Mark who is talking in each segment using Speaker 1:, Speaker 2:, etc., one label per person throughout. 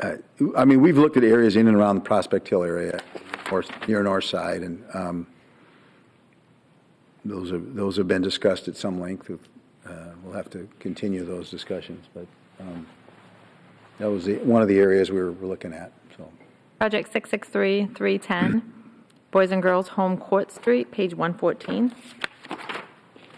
Speaker 1: uh, I mean, we've looked at areas in and around the Prospect Hill area, or near North Side, and um, those have, those have been discussed at some length. Uh, We'll have to continue those discussions, but um, that was the- one of the areas we were were looking at, so.
Speaker 2: Project 663-310, Boys and Girls Home Court Street, page 114.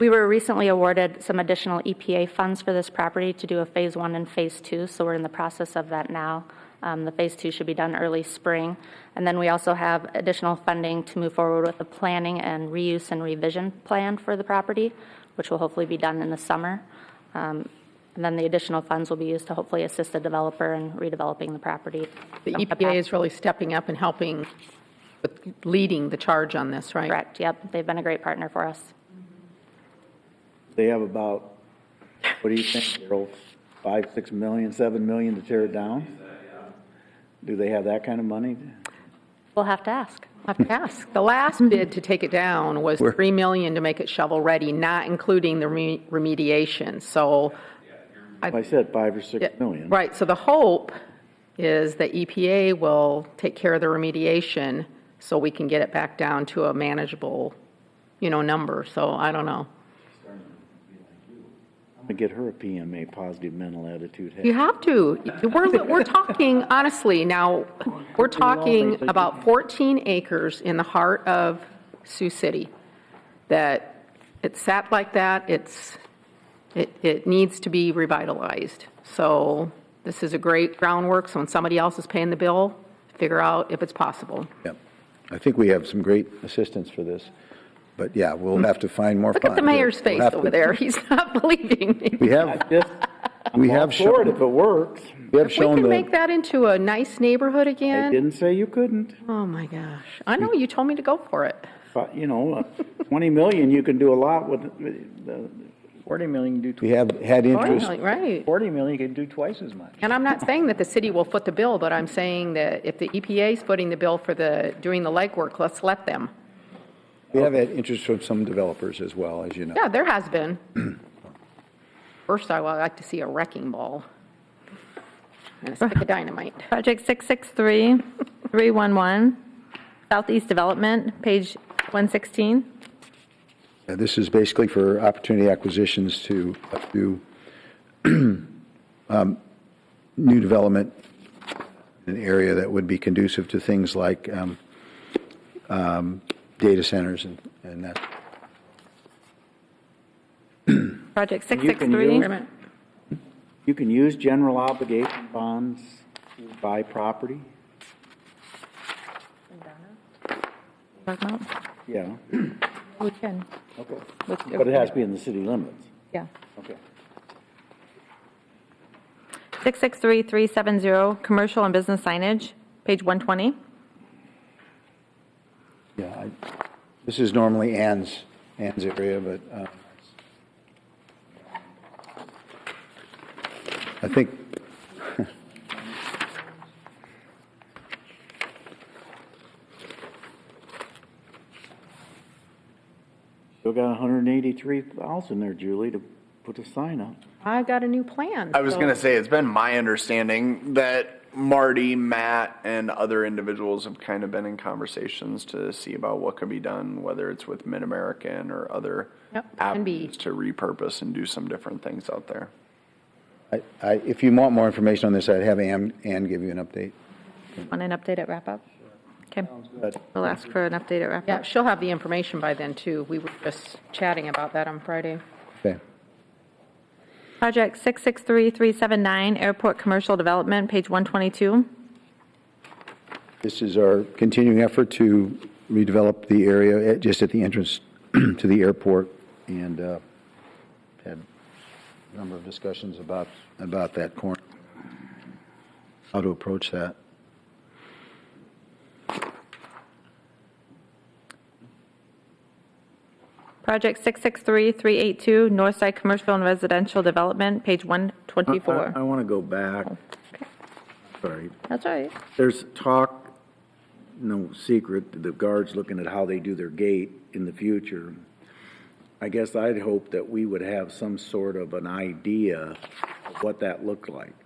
Speaker 3: We were recently awarded some additional EPA funds for this property to do a Phase 1 and Phase 2, so we're in the process of that now. Um, The Phase 2 should be done early spring. And then we also have additional funding to move forward with the planning and reuse and revision plan for the property, which will hopefully be done in the summer. Um, And then the additional funds will be used to hopefully assist the developer in redeveloping the property.
Speaker 4: The EPA is really stepping up and helping, with leading the charge on this, right?
Speaker 3: Correct, yep. They've been a great partner for us.
Speaker 5: They have about, what do you think, Daryl, five, six million, seven million to tear it down? Do they have that kind of money?
Speaker 3: We'll have to ask.
Speaker 4: Have to ask. The last bid to take it down was 3 million to make it shovel-ready, not including the re- remediation, so. I-
Speaker 5: I said five or six million.
Speaker 4: Right, so the hope is that EPA will take care of the remediation so we can get it back down to a manageable, you know, number, so I don't know.
Speaker 5: I'm gonna get her a PMA, positive mental attitude.
Speaker 4: You have to. We're, we're talking, honestly, now, we're talking about 14 acres in the heart of Sioux City, that it's sat like that, it's, it, it needs to be revitalized. So this is a great groundwork, so when somebody else is paying the bill, figure out if it's possible.
Speaker 1: Yep. I think we have some great assistance for this, but yeah, we'll have to find more
Speaker 4: Look at the
Speaker 1: funds.
Speaker 4: mayor's
Speaker 1: We'll
Speaker 4: face
Speaker 1: have
Speaker 4: over
Speaker 1: to-
Speaker 4: there, he's not believing me.
Speaker 1: We have,
Speaker 5: Just,
Speaker 1: we
Speaker 5: all
Speaker 1: have
Speaker 5: for it
Speaker 1: shown,
Speaker 5: if it works.
Speaker 1: we have
Speaker 4: If we
Speaker 1: shown
Speaker 4: can make
Speaker 1: the,
Speaker 4: that into a nice neighborhood
Speaker 5: I
Speaker 4: again,
Speaker 5: didn't say you couldn't.
Speaker 4: oh my gosh, I know, you told me to go for it.
Speaker 5: But, you know, uh, twenty million, you can do a lot with, uh,
Speaker 6: 40 million, you do
Speaker 1: we
Speaker 6: tw-
Speaker 1: have had interest.
Speaker 4: Right.
Speaker 6: 40 million, you can do twice as much.
Speaker 4: And I'm not saying that the city will foot the bill, but I'm saying that if the EPA is footing the bill for the, doing the legwork, let's let them.
Speaker 1: We have had interest from some developers as well, as you know.
Speaker 4: Yeah, there has been. First, I would like to see a wrecking ball and a stick of dynamite.
Speaker 2: Project 663-311, Southeast Development, page 116.
Speaker 1: Uh, This is basically for opportunity acquisitions to do um, new development in an area that would be conducive to things like um, um, data centers and- and that.
Speaker 2: Project
Speaker 5: you can use-
Speaker 2: 663.
Speaker 5: Wait a minute. you can use general obligation bonds to buy property.
Speaker 2: Talk about-
Speaker 5: Yeah,
Speaker 2: We can.
Speaker 5: okay.
Speaker 2: Let's go.
Speaker 5: But it has to be in the city limits.
Speaker 2: Yeah.
Speaker 5: Okay.
Speaker 2: 663-370, Commercial and Business Signage, page 120.
Speaker 1: Yeah, I- this is normally Ann's, Ann's area, but uh, I think,
Speaker 5: Still got hundred and eighty-three thousand there, Julie, to put a sign up.
Speaker 4: I got a new plan.
Speaker 7: I was
Speaker 4: so-
Speaker 7: going to say, it's been my understanding that Marty, Matt, and other individuals have kind of been in conversations to see about what can be done, whether it's with Mid American or other
Speaker 4: Yep, can be.
Speaker 7: avenues to repurpose and do some different things out there.
Speaker 1: I- I- if you want more information on this, I'd have Ann, Ann give you an update.
Speaker 2: Want an update at wrap-up? Okay. We'll ask for an update at
Speaker 4: Yeah,
Speaker 2: wrap-up.
Speaker 4: she'll have the information by then, too. We were just chatting about that on Friday.
Speaker 1: Okay.
Speaker 2: Project 663-379, Airport Commercial Development, page 122.
Speaker 1: This is our continuing effort to redevelop the area at- just at the entrance to the airport, and uh, had a number of discussions about, about that corner, how to approach that.
Speaker 2: Project 663-382, Northside Commercial and Residential Development, page
Speaker 5: I
Speaker 2: 124.
Speaker 5: want to go back. Sorry.
Speaker 2: That's all right.
Speaker 5: There's talk, no secret, the guards looking at how they do their gate in the future. I guess I'd hope that we would have some sort of an idea of what that looked like.